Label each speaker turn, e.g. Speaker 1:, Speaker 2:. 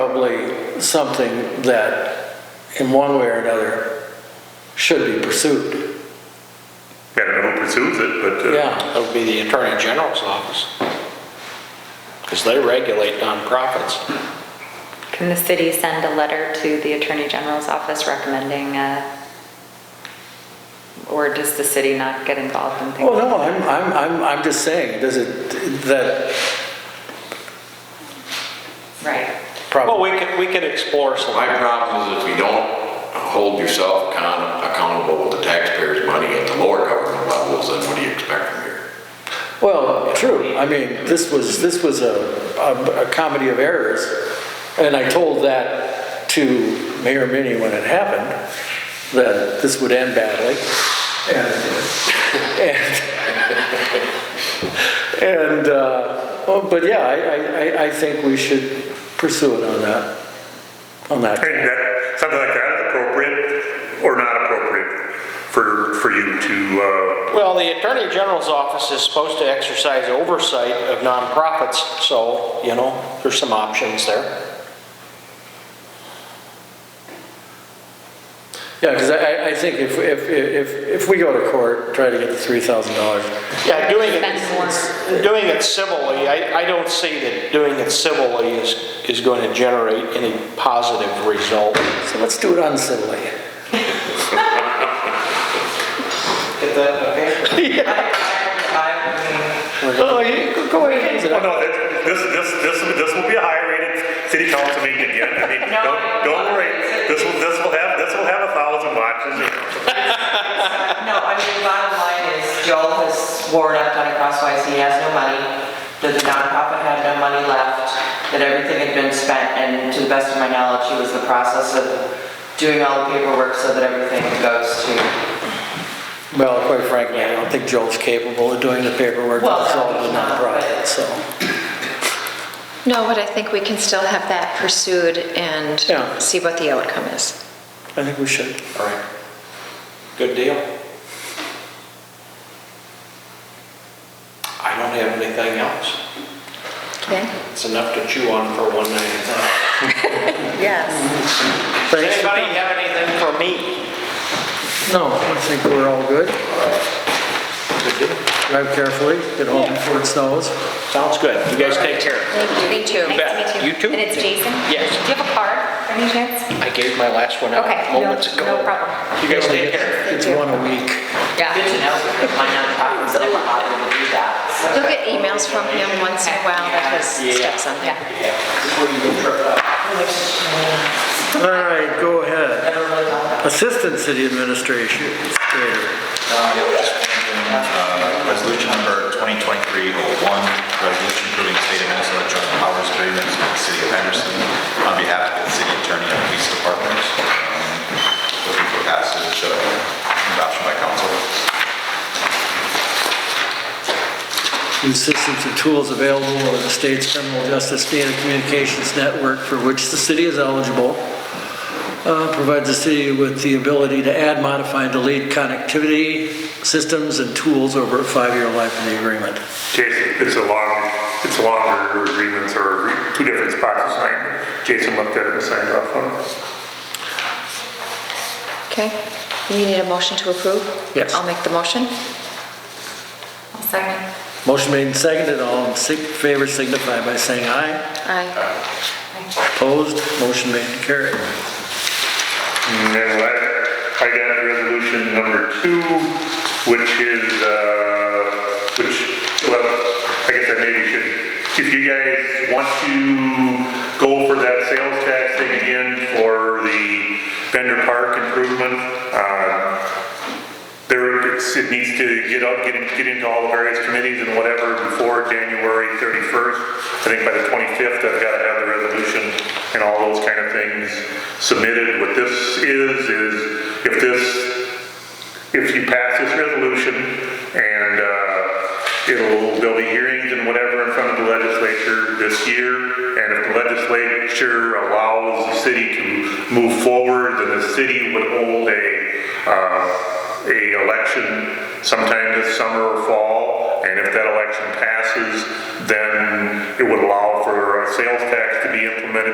Speaker 1: something that, in one way or another, should be pursued.
Speaker 2: I don't know who pursues it, but, uh,
Speaker 3: That would be the Attorney General's office. Because they regulate nonprofits.
Speaker 4: Can the city send a letter to the Attorney General's office recommending, uh, or does the city not get involved in
Speaker 1: Well,
Speaker 4: things?
Speaker 1: no, I'm, I'm, I'm, I'm just saying, does it, that
Speaker 4: Right.
Speaker 3: Well,
Speaker 1: probably,
Speaker 3: we can, we can explore some.
Speaker 5: My problem is if you don't hold yourself account- accountable with the taxpayers' money at the lower government levels, then what do you expect from here?
Speaker 1: well, true, I mean, this was, this was a, a- a comedy of errors, and I told that to Mayor Minnie when it happened, that this would end badly, and, and And, uh, oh, but yeah, I- I, I, I think we should pursue it on that, on
Speaker 2: I
Speaker 1: that.
Speaker 2: think that, something like that is appropriate or not appropriate for, for you to, uh,
Speaker 3: Well, the Attorney General's office is supposed to exercise oversight of nonprofits, so, you know, there's some options there.
Speaker 1: Yeah, because I, I- I think if, if, if, if we go to court, try to get the three thousand dollars.
Speaker 3: Yeah, doing
Speaker 4: Spend more.
Speaker 3: it, doing it civilly, I, I don't see that doing it civilly is, is going to generate any positive result.
Speaker 1: So let's do it uncivilly.
Speaker 6: Get that in the paper. I-
Speaker 1: Oh, you, go- go ahead.
Speaker 2: oh, no, that- this, this, this, this will be a high-rated city council meeting again. I mean, don't, don't worry, this will, this will have, this will have a thousand watches.
Speaker 6: I- No, I mean, the bottom line is Joel has sworn up on crosswise he has no money, that the nonprofit had no money left, that everything had been spent, and to the best of my knowledge, he was in the process of doing all the paperwork so that everything goes to.
Speaker 1: Well, quite frankly, I don't think Joel's capable of doing the paperwork to
Speaker 6: Well,
Speaker 1: solve the
Speaker 6: no, he's not, but-
Speaker 1: nonprofit, so.
Speaker 7: No, but I think we can still have that pursued and
Speaker 1: Yeah.
Speaker 7: see what the outcome is.
Speaker 1: I think we should.
Speaker 3: All right. Good deal. I don't have anything else.
Speaker 7: Okay?
Speaker 3: It's enough to chew on for one night at a time.
Speaker 7: Yes.
Speaker 1: Thanks. for-
Speaker 3: Anybody have anything for me?
Speaker 1: No, I think we're all good. Drive carefully, get home before it snows.
Speaker 3: Sounds good. You guys take care.
Speaker 4: Thank you. Me too.
Speaker 3: Nice
Speaker 4: Nice
Speaker 3: to meet
Speaker 4: to
Speaker 3: you. You too.
Speaker 4: And it's Jason?
Speaker 3: Yes.
Speaker 4: Do you have a card, by any chance?
Speaker 3: I gave my last one out
Speaker 4: Okay.
Speaker 3: moments ago.
Speaker 4: No no problem.
Speaker 3: You guys take care.
Speaker 1: It's one a week.
Speaker 6: Good
Speaker 4: Yeah.
Speaker 6: to know, because my nonprofit's never bothered to do that. so.
Speaker 7: You'll get emails from him once in a while that has steps on there.
Speaker 4: Yeah.
Speaker 1: All right, go ahead.
Speaker 6: Never really thought about it.
Speaker 1: Assistant City Administration.
Speaker 8: Uh, yeah, just one thing, uh, Resolution number 2023-01, resolution approving state of Minnesota joint powers agreement with the city of Henderson on behalf of the city attorney and police department. Um, Looking for passage, uh, adoption by council.
Speaker 1: The assistance and tools available under the state's criminal justice data communications network for which the city is eligible. Uh, Provides the city with the ability to add, modify, and delete connectivity systems and tools over a five-year life of the agreement.
Speaker 2: Jason, it's a long, it's a longer agreements or two different spots assigned. Jason looked at it and signed off on it.
Speaker 7: Okay? You need a motion to approve?
Speaker 1: Yes.
Speaker 7: I'll make the motion.
Speaker 4: I'll second.
Speaker 1: Motion made and seconded, all in sig- favor signify by saying aye.
Speaker 7: Aye.
Speaker 1: Opposed, motion made and carried.
Speaker 2: And then I, I got resolution number two, which is, uh, which, well, I guess I maybe should, if you guys want to go for that sales tax thing again for the Bender Park improvement, uh, there, it's- it needs to get up, get in- get into all the various committees and whatever before January 31st. I think by the 25th, I've got to have the resolution and all those kind of things submitted. What this is, is if this, if you pass this resolution and uh, it'll, there'll be hearings and whatever in front of the legislature this year. And if the legislature allows the city to move forward, then the city would hold a, uh, a election sometime this summer or fall. And if that election passes, then it would allow for a sales tax to be implemented